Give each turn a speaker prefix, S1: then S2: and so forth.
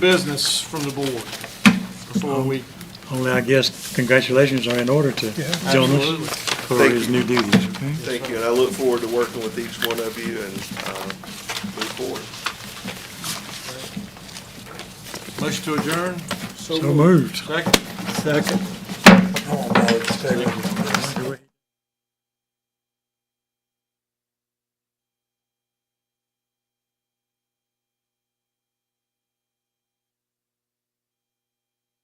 S1: business from the board before we,
S2: Only, I guess, congratulations are in order to
S1: absolutely.
S2: Jonas for his new duties, okay?
S3: Thank you, and I look forward to working with each one of you and uh, move forward.
S1: Motion to adjourn?
S2: So moved.
S1: Second?
S2: Second.
S4: Oh, no, it's taken.